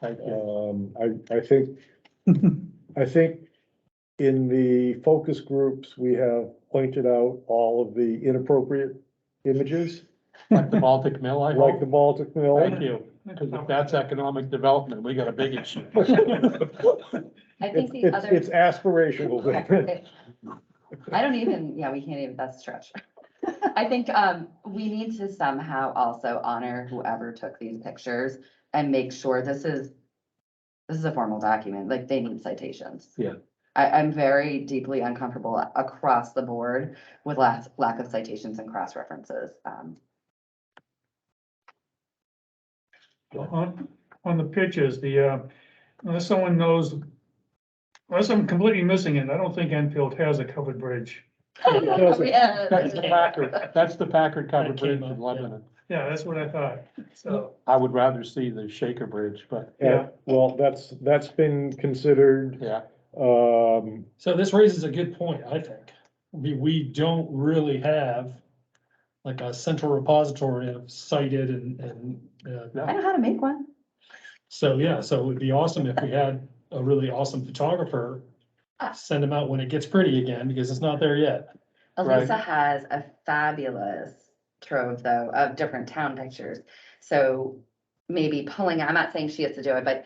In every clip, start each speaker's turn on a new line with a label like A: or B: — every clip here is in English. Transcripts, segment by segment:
A: Thank you.
B: Um, I, I think, I think in the focus groups, we have pointed out all of the inappropriate images,
A: Like the Baltic Mill, I
B: like
A: hope.
B: the Baltic Mill.
A: Thank you, because if that's economic development, we got a big issue.
C: I
B: It's,
C: think the
B: it's, it's
C: other.
B: aspirational.
C: I don't even, yeah, we can't even, that's a stretch. I think um, we need to somehow also honor whoever took these pictures and make sure this is, this is a formal document, like they need citations.
A: Yeah.
C: I, I'm very deeply uncomfortable across the board with lack, lack of citations and cross references. Um,
D: On, on the pictures, the, uh, unless someone knows, unless I'm completely missing it, I don't think Enfield has a covered bridge.
A: That's the Packard, that's the Packard covered
E: That came
A: bridge in
E: up, yeah.
A: Lebanon.
D: Yeah, that's what I thought, so,
A: I would rather see the Shaker Bridge, but
B: Yeah, well, that's, that's been considered,
A: yeah,
B: um,
E: So this raises a good point, I think. We, we don't really have like a central repository of cited and, and, uh,
C: I know how to make one.
E: so yeah, so it would be awesome if we had a really awesome photographer. Send them out when it gets pretty again, because it's not there yet.
A: Right.
C: Elisa has a fabulous trove though of different town pictures. So maybe pulling, I'm not saying she has to do it, but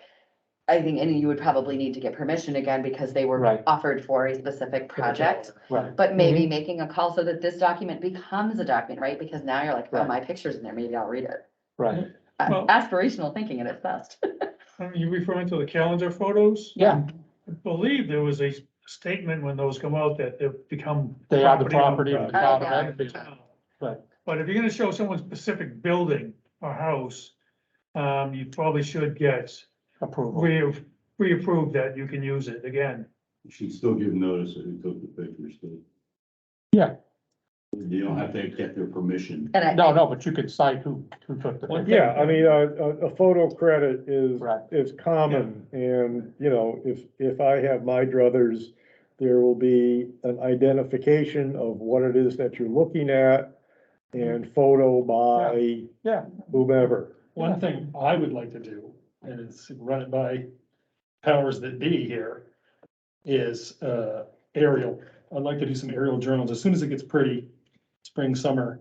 C: I think, and you would probably need to get permission again because they were
A: Right. Mm-hmm.
C: offered for a specific project.
A: right,
C: But maybe making a call so that this document becomes a document, right? Because now you're like, oh,
A: Right.
C: my picture's in there, maybe I'll read it.
A: right.
C: Uh,
D: Well-
C: Aspirational thinking at its best.
D: are you referring to the calendar photos?
A: Yeah.
D: I believe there was a statement when those come out that they've become.
A: They are the property
D: property
A: of
D: owned
A: the
D: by-
A: town
C: Oh,
A: of
C: yeah.
D: the
A: Enfield,
D: town.
A: but
D: But if you're gonna show someone specific building or house, um, you probably should get,
A: approval.
D: we, we approve that you can use it again.
F: You should still give notice of who took the pictures, too.
A: Yeah.
F: You don't have to get their permission.
C: And I.
A: No, no, but you could cite who, who took the
E: Well,
A: picture.
B: yeah, I mean, a, a, a photo credit is,
A: Right.
B: is common. And, you know, if, if I have my druthers, there will be an identification of what it is that you're looking at and photo by
A: Yeah.
B: whomever.
E: One thing I would like to do, and it's run it by powers that be here, is uh aerial. I'd like to do some aerial journals as soon as it gets pretty, spring, summer.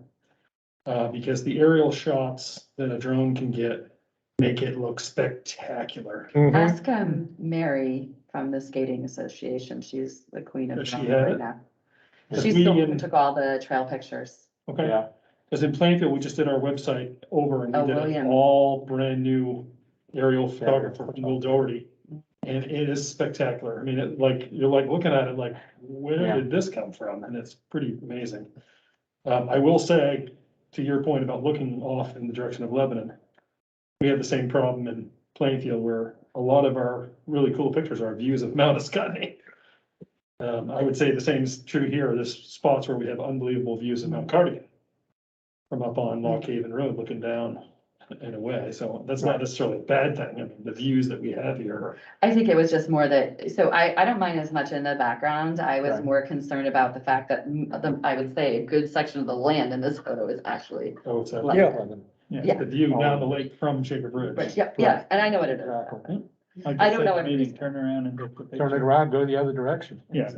E: Uh, because the aerial shots that a drone can get make it look spectacular.
B: Mhm.
C: Ask um Mary from the skating association. She's the queen of
E: Does she
C: drama
E: have
C: right
E: it?
C: now.
E: Does
C: She's the one who
E: Megan-
C: took all the trail pictures.
E: Okay,
A: Yeah,
E: because in Plainfield, we just did our website over and
C: Oh,
E: we did
C: William.
E: an all brand new aerial photographer from Will Doherty. And it is spectacular. I mean, it like, you're like looking at it like,
A: Yeah.
E: where did this come from? And it's pretty amazing. Um, I will say, to your point about looking off in the direction of Lebanon, we had the same problem in Plainfield where a lot of our really cool pictures are views of Mount Ascot. Um, I would say the same is true here. There's spots where we have unbelievable views of Mount Cardigan from up on Lock Haven Road looking down in a way. So that's not necessarily a bad thing. I mean, the views that we have here are
C: I think it was just more that, so I, I don't mind as much in the background. I was
A: Right.
C: more concerned about the fact that, mm, the- I would say, a good section of the land in this photo is actually,
E: Oh, it's a-
C: Right.
B: Yeah.
C: Yeah.
E: yeah, the view down the lake from Shaker Bridge.
C: yeah, yeah, and I know what it is.
A: Exactly.
C: I don't know what it
E: Maybe
C: is.
E: turn around and go. put
A: Turn it
E: pictures.
A: around, go the other direction.
E: Yeah.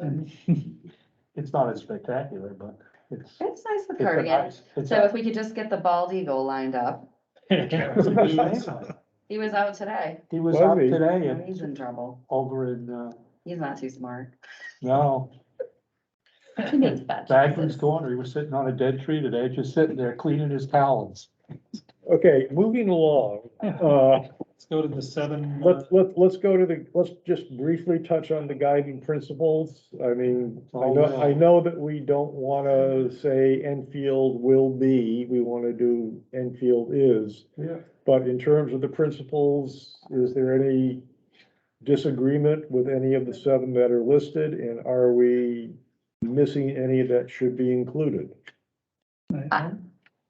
A: It's not as spectacular, but it's.
C: It's nice
A: it's
C: with
A: a
C: cardigan.
A: nice- it's
C: So if we could just get the bald eagle lined up,
A: a-
C: he was out today,
A: He was
B: Was
A: out
B: he?
A: today
C: and
A: and
C: he's in trouble.
A: over in, uh,
C: He's not too smart.
A: no,
C: He makes bad
A: Bagley's
C: choices.
A: corner, he was sitting on a dead tree today, just sitting there cleaning his talons.
B: Okay, moving along, uh,
E: Let's go to the seven.
B: let's, let's, let's go to the, let's just briefly touch on the guiding principles. I mean, I know, I know that we don't wanna say Enfield will be, we wanna do Enfield is.
A: Yeah.
B: But in terms of the principles, is there any disagreement with any of the seven that are listed? And are we missing any that should be included?
C: I-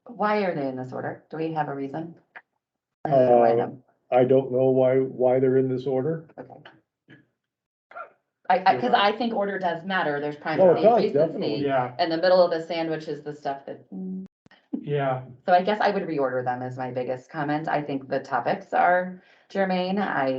C: Why are they in this order? Do we have a reason? I don't know why
B: Uh,
C: them.
B: I don't know why, why they're in this order.
C: Okay. I, I, because I think order does matter. There's
B: Oh, it
C: primacy,
B: does,
C: recency,
B: definitely.
A: Yeah,
C: And the middle of the sandwich is the stuff that,
A: yeah,
C: so I guess I would reorder them as my biggest comment. I think the topics are germane. I